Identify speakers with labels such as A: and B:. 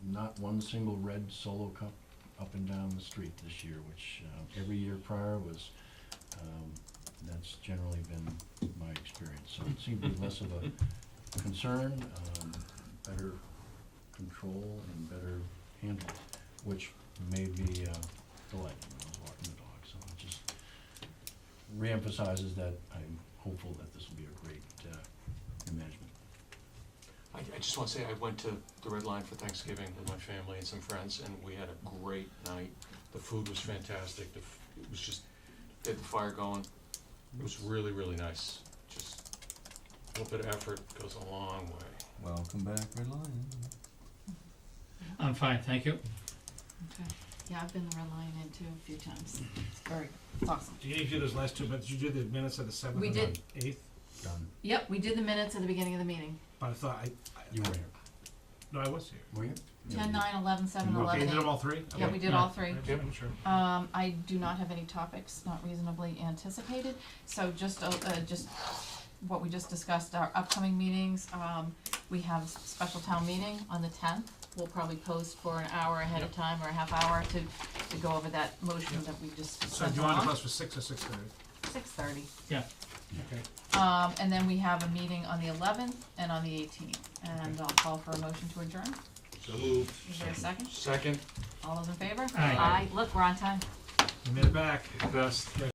A: not one single red Solo Cup up and down the street this year, which uh, every year prior was, um, that's generally been my experience. So it seemed to be less of a concern, um, better control and better handle, which may be uh, delightful when I was walking the dog. So it just reemphasizes that I'm hopeful that this will be a great uh, management.
B: I, I just want to say I went to the Red Line for Thanksgiving with my family and some friends, and we had a great night. The food was fantastic. The, f- it was just they had the fire going. It was really really nice. Just a little bit of effort goes a long way.
C: Welcome back, Red Lion.
D: I'm fine, thank you.
E: Okay, yeah, I've been the Red Lion in too a few times, it's very, it's awesome.
F: Do you need to do those last two minutes? You did the minutes of the seventh
E: We
F: and
E: did.
F: the eighth,
A: Done.
E: Yep, we did the minutes at the beginning of the meeting,
F: but I thought I,
A: You
F: I,
A: were here.
F: no, I was here.
A: Were you?
E: ten, nine, eleven, seven,
F: Okay, you
E: eleven,
F: did them
E: eight.
F: all three?
E: Yeah,
F: Okay.
E: we did all three.
F: I'm sure- I'm sure.
E: Um, I do not have any topics not reasonably anticipated, so just, uh, uh, just what we just discussed, our upcoming meetings, um, we have special town meeting on the tenth. We'll probably post for an hour ahead of
B: Yep.
E: time or a half hour to, to go over that motion that we just
F: So do
E: sent
F: you want to
E: along,
F: post for six or six thirty?
E: six thirty.
D: Yeah,
F: Okay.
E: Um, and then we have a meeting on the eleventh and on the eighteenth, and I'll call for a motion to adjourn.
B: So moved.
E: Is there a second?
B: Second.
E: All those in favor?
D: Aye.
E: Look, we're on time.
F: You made it back.
B: Best.